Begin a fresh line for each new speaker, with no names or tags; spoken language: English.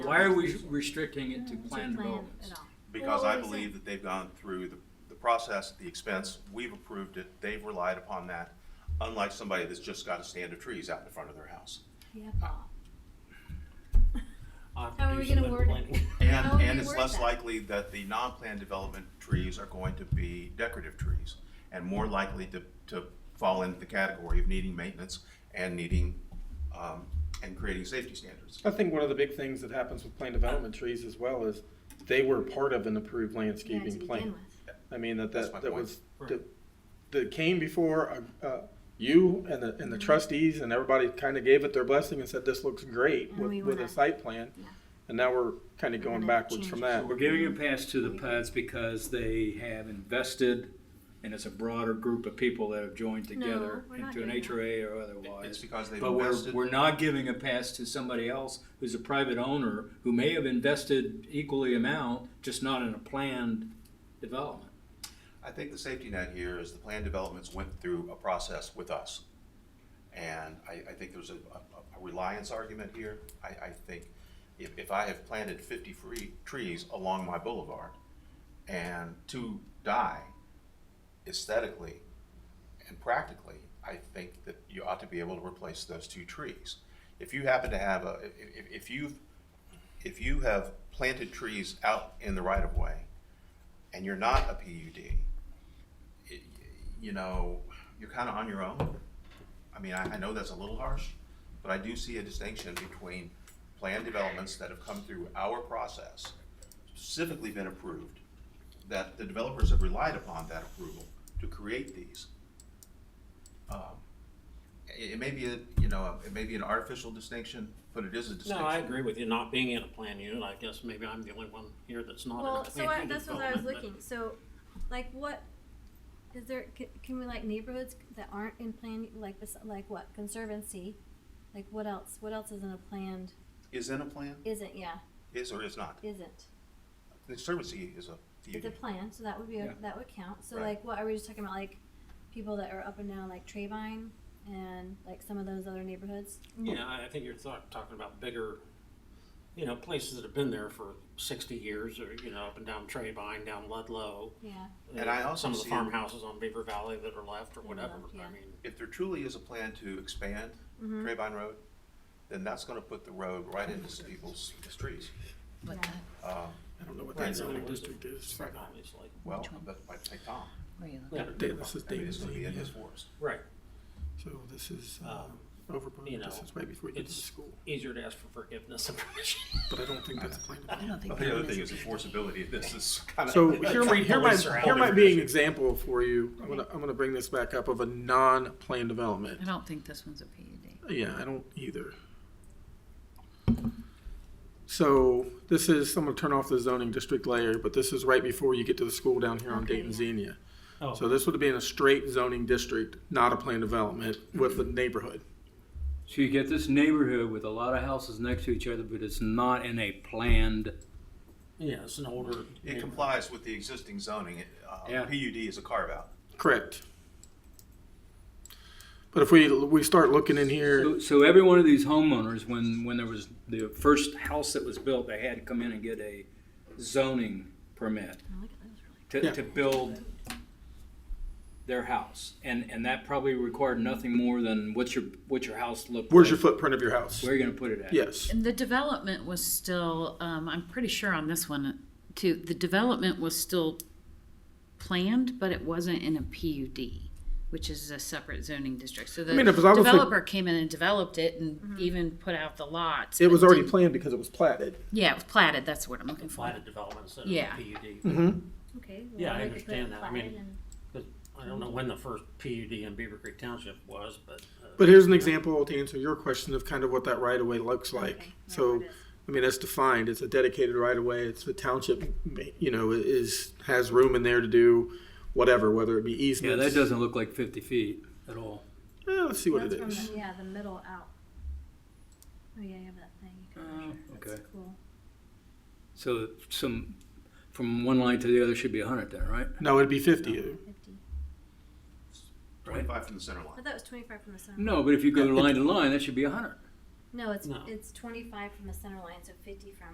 Why are we restricting it to planned developments?
at all.
Because
Well,
I
what is
believe
it?
that they've gone through the, the process, the expense, we've approved it, they've relied upon that, unlike somebody that's just got a stand of trees out in front of their house.
Yeah, Paul.
I'll have to
How are
do
we gonna
some
word it?
planning.
How
And,
would
and
we
it's
word
less
that?
likely that the non-planned development trees are going to be decorative trees and more likely to, to fall into the category of needing maintenance and needing, um, and creating safety standards.
I think one of the big things that happens with planned development trees as well is they were part of an approved
Yeah, to
landscaping
begin
plan.
with.
I mean, that,
That's my
that, that
point.
was, that, that came before, uh, uh, you and the,
Mm-hmm.
and the trustees and everybody kind of gave it their blessing and said, this looks great
And we
with, with
wanna-
a site plan.
yeah.
And now we're kind of going
gonna
backwards
change
from
it.
that.
So we're giving a pass to the PUDs because they have invested, and it's a broader group of people that have joined together
we're not
into an
doing that.
HRA or
It's
otherwise.
because they've
But we're,
invested.
we're not giving a pass to somebody else who's a private owner who may have invested equally amount, just not in a planned development.
I think the safety net here is the planned developments went through a process with us. And I, I think there's a, a- a reliance argument here. I, I think if, if I have planted fifty free trees along my boulevard and two die aesthetically and practically, I think that you ought to be able to replace those two trees. If you happen to have a, if, if- if you've, if you have planted trees out in the right of way and you're not a PUD, it- you know, you're kind of on your own. I mean, I, I know that's a little harsh, but I do see a distinction between planned developments that have come through our process, specifically been approved, that the developers have relied upon that approval to create these. Um, It, it may be, a you know, it may be an artificial distinction, but it is a distinction.
No, I agree with you, not being in a plan unit, I guess maybe I'm the only one here that's not in a
Well,
plan
so
unit.
I, that's what I was
development, but-
looking, so, like, what, is there, can, can we like neighborhoods that aren't in plan, like, this- like what, conservancy? Like, what else, what else isn't a planned,
Is in a plan,
isn't, yeah,
is or is not.
isn't?
Conservancy is a PUD.
It's a plan, so that would be, a- that would count, so
Right.
like, what, are we just talking about, like, people that are up and down, like Trayvine, and like some of those other neighborhoods?
Yeah, I I think you're talk- talking about bigger, you know, places that have been there for sixty years, or, you know, up and down Trayvine, down Ludlow.
Yeah,
And I also
Some of the
see-
farmhouses on Beaver Valley that are left or whatever,
yeah.
I mean,
if there truly is a plan to expand Trayvine Road, then that's gonna put the road right into people's streets.
yeah,
Um,
I don't know what
Right,
that zoning
right.
district is.
obviously.
Well,
Which one?
but like take Tom,
Where you
Yeah.
looking? Da- This is
I mean,
David's,
it's gonna be in his
yeah.
forest.
Right,
So this is uh,
Um,
over,
you
this
know,
is way before you get to
it's-
school,
easier to ask for forgiveness and permission.
but I don't think that's planned.
I don't think.
The other
that
thing is
is-
enforceability, this is kinda.
So here might, here might,
Police are out
here might
there.
be an example for you. I'm gonna, I'm gonna bring this back up of a non-planned development.
I don't think this one's a PUD.
Yeah, I don't either. So this is, I'm gonna turn off the zoning district layer, but this is right before you get to the school down here on
Okay,
Dayton
yeah.
Xenia.
Oh.
So this would have been a straight zoning district, not a planned development with the neighborhood.
So you get this neighborhood with a lot of houses next to each other, but it's not in a planned.
Yeah, it's an older.
It complies with the existing zoning, It, uh,
Yeah.
PUD is a carve out.
Correct. But if we, we start looking in here,
So, so every one of these homeowners, when, when there was the first house that was built, they had to come in and get a zoning permit
Oh, look at those really.
to, to
Yeah.
build their house. And, and that probably required nothing more than what's your, what's your house look like?
where's your footprint of your house?
Where are you gonna put it at?
Yes,
And the development was still, um, I'm pretty sure on this one too, the development was still planned, but it wasn't in a PUD, which is a separate zoning district. So the
mean, if it's obviously- Mm-hmm.
developer came in and developed it and even put out the lots.
it
but
was already
didn't-
planned because it was platted.
Yeah, it was platted, that's what I'm looking for.
Platted development instead
Yeah.
of PUD.
Mm-hmm.
Okay. well,
Yeah,
we
I
could put
understand that. I
platted
mean-
and-
But I don't know when the first PUD in Beaver Creek Township was, but. uh,
But here's an example to answer your question of kind of what that right of way looks like.
Okay, yeah,
So,
it is.
I mean, that's defined. It's a dedicated right of way. It's the township, you know, is has room in there to do whatever, whether it be
Yeah,
easements.
that doesn't look like fifty feet at all.
Eh, let's see what it
That's
is.
from the- Yeah, the middle out. Oh, yeah, you have that thing. you can
Oh,
measure. That's
okay.
Cool.
So some, from one line to the other should be a hundred then, right?
No, it'd be fifty.
Fifty.
Right.
Twenty-five from the center
I
line.
thought it was twenty-five from the center.
No, but if you go line to line, that should be a hundred.
No, it's,
No.
it's twenty-five from the center line, so fifty from